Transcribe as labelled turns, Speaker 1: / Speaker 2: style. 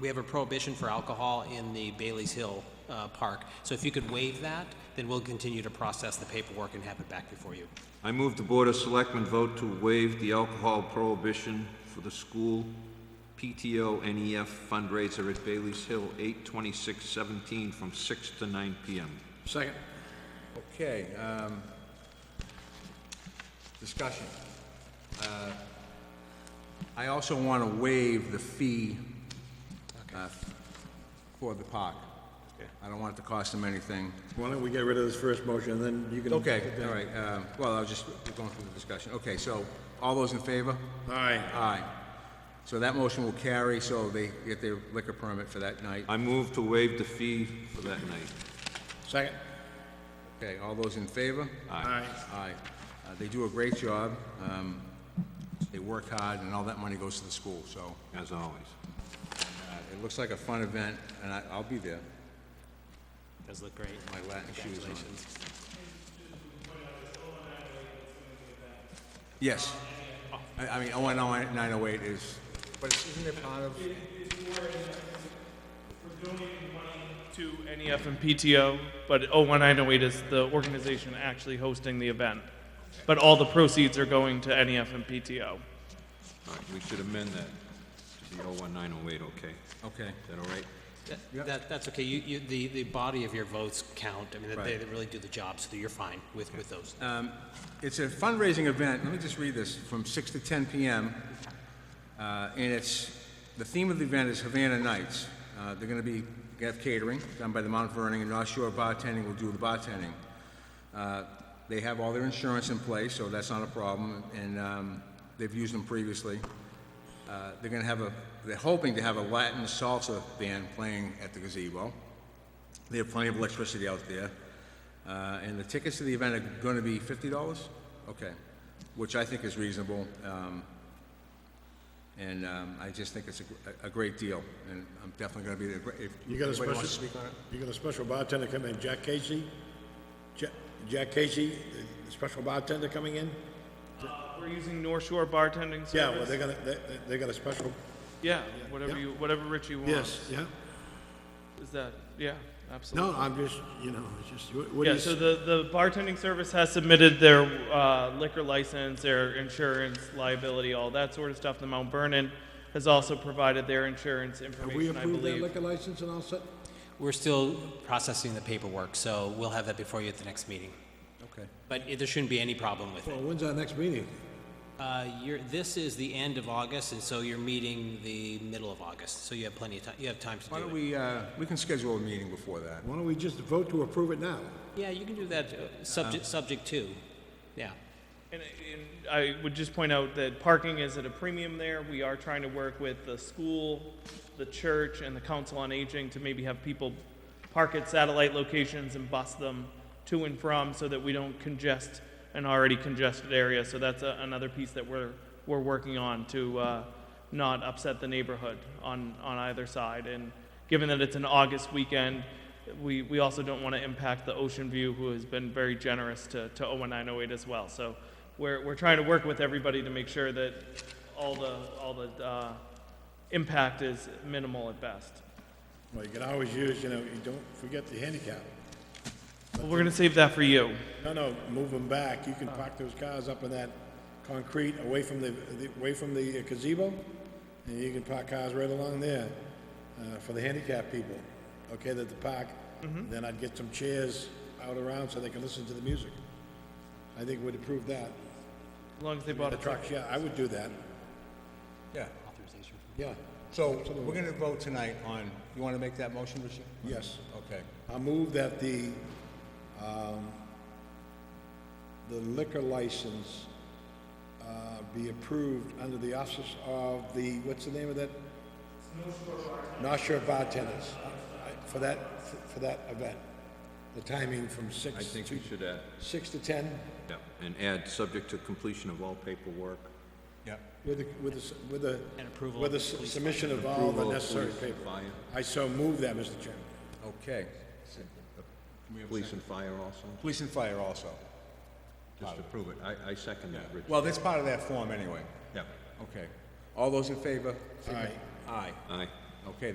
Speaker 1: we have a prohibition for alcohol in the Bailey's Hill uh, Park. So if you could waive that, then we'll continue to process the paperwork and have it back before you.
Speaker 2: I move the Board of Selectmen vote to waive the alcohol prohibition for the school PTO NEF E fundraiser at Bailey's Hill, 8/26/17, from 6 to 9 p.m.
Speaker 3: Second.
Speaker 4: Okay, um, discussion. Uh, I also want to waive the fee uh, for the park. I don't want it to cost them anything.
Speaker 3: Why don't we get rid of this first motion, and then you can...
Speaker 4: Okay, all right, uh, well, I was just going through the discussion. Okay, so, all those in favor?
Speaker 3: Aye.
Speaker 4: Aye. So that motion will carry, so they get their liquor permit for that night.
Speaker 2: I move to waive the fee for that night.
Speaker 3: Second.
Speaker 4: Okay, all those in favor?
Speaker 3: Aye.
Speaker 4: Aye. Uh, They do a great job. Um, They work hard, and all that money goes to the school, so
Speaker 2: As always.
Speaker 4: uh, it looks like a fun event, and I- I'll be there,
Speaker 1: Does look great.
Speaker 4: my Latin shoes on.
Speaker 1: Congratulations.
Speaker 4: Yes. I I mean, 01908 is, but it's- isn't it part of,
Speaker 5: to NEF and PTO, but 01908 is the organization actually hosting the event. But all the proceeds are going to NEF and PTO.
Speaker 2: All right, we should amend that to oh the 01908, okay?
Speaker 4: okay.
Speaker 2: Is that all right?
Speaker 4: Yep.
Speaker 1: That, that- that's okay. You, you, the, the body of your votes count. I mean, that they,
Speaker 4: Right.
Speaker 1: they really do the job, so that you're fine with, with those.
Speaker 4: It's a fundraising event, let me just read this, from 6 to 10 PM. Uh, And it's, the theme of the event is Havana Nights. Uh, They're going to be, gonna have catering done by the Mount Vernon, and North Shore Bartending will do the bartending. Uh, They have all their insurance in place, so that's not a problem, and um, they've used them previously. Uh, They're going to have a, they're hoping to have a Latin salsa band playing at the gazebo. They have plenty of electricity out there. Uh, and the tickets to the event are going to be fifty dollars? Okay, which I think is reasonable. Um, and, um, I just think it's a, gr- a- a great deal, and I'm definitely going to be there. Gr- If
Speaker 3: You got a
Speaker 4: anybody wants to
Speaker 3: special-
Speaker 4: speak on it?
Speaker 3: You got a special bartender coming in, Jack Casey? Ja- Jack Casey, the special bartender coming in?
Speaker 5: We're using North Shore Bartending Service.
Speaker 3: Yeah, well, they're gonna, they, they- they got a special...
Speaker 5: Yeah, whatever
Speaker 3: yeah.
Speaker 5: you, whatever Rich you want.
Speaker 3: yeah.
Speaker 5: Is that, yeah, absolutely.
Speaker 3: No, I'm just, you know, it's just, what what do
Speaker 5: Yeah,
Speaker 3: you...
Speaker 5: so
Speaker 3: s-
Speaker 5: the, the bartending service has submitted their uh, liquor license, their insurance, liability, all that sort of stuff. The Mount Vernon has also provided their insurance
Speaker 3: Have we
Speaker 5: information, I
Speaker 3: approved that
Speaker 5: believe.
Speaker 3: liquor license and all set?
Speaker 1: We're still processing the paperwork, so we'll have that before you at the next meeting.
Speaker 4: Okay.
Speaker 1: But it- there shouldn't be any problem with it.
Speaker 3: Well, when's our next meeting?
Speaker 1: Uh, you're, this is the end of August, and so you're meeting the middle of August, so you have plenty of time, you have time to
Speaker 4: Why don't
Speaker 1: do it.
Speaker 4: we, uh, we can schedule a meeting before that.
Speaker 3: Why don't we just vote to approve it now?
Speaker 1: Yeah, you can do that, uh, subject, subject to, yeah.
Speaker 5: And, and I would just point out that parking is at a premium there. We are trying to work with the school, the church, and the council on aging to maybe have people park at satellite locations and bus them to and from so that we don't congest an already congested area. So that's a, another piece that we're, we're working on to uh, not upset the neighborhood on, on either side. And given that it's an August weekend, we, we also don't want to impact the Ocean View, who has been very generous to, to 01908 as well. So we're, we're trying to work with everybody to make sure that all the, all the uh, impact is minimal at best.
Speaker 3: Well, you can always use, you know, you don't forget the handicap.
Speaker 5: But we're going to save that for you.
Speaker 3: No, no, move them back. You can park those cars up in that concrete away from the, the- away from the uh, gazebo, and you can park cars right along there uh, for the handicapped people, okay, that the park. Then I'd get some chairs out around so they can listen to the music. I think we'd approve that.
Speaker 5: As long as they bought
Speaker 3: The
Speaker 5: a truck.
Speaker 3: trucks, yeah, I would do that,
Speaker 4: Yeah,
Speaker 3: yeah,
Speaker 4: so we're going to vote tonight on, you want to make that motion, Richard?
Speaker 3: yes.
Speaker 4: Okay.
Speaker 3: I move that the, um, the liquor license, uh, be approved under the office of the, what's the name of that? North Shore Bartenders, uh, I- for that, for that event. The timing from
Speaker 2: I
Speaker 3: six
Speaker 2: think
Speaker 3: to,
Speaker 2: we should add,
Speaker 3: six to ten,
Speaker 2: yeah, and add subject to completion of all paperwork.
Speaker 4: Yep.
Speaker 3: with the, with the, s- with the.
Speaker 1: And approval
Speaker 3: With the
Speaker 1: of the
Speaker 3: s-
Speaker 1: police
Speaker 3: submission of all the
Speaker 2: Approval of
Speaker 3: necessary
Speaker 2: police and
Speaker 3: paperwork.
Speaker 2: fire.
Speaker 3: I so move that, Mr. Chairman.
Speaker 4: Okay. Can we have a
Speaker 2: Police
Speaker 4: second?
Speaker 2: and fire also,
Speaker 4: Police and fire also.
Speaker 2: just to prove it. I, I second that, Rich.
Speaker 4: Well, that's part of that form anyway.
Speaker 2: Yeah,
Speaker 4: Okay. All those in favor?
Speaker 3: Aye.
Speaker 4: Aye.
Speaker 2: aye.
Speaker 4: Okay,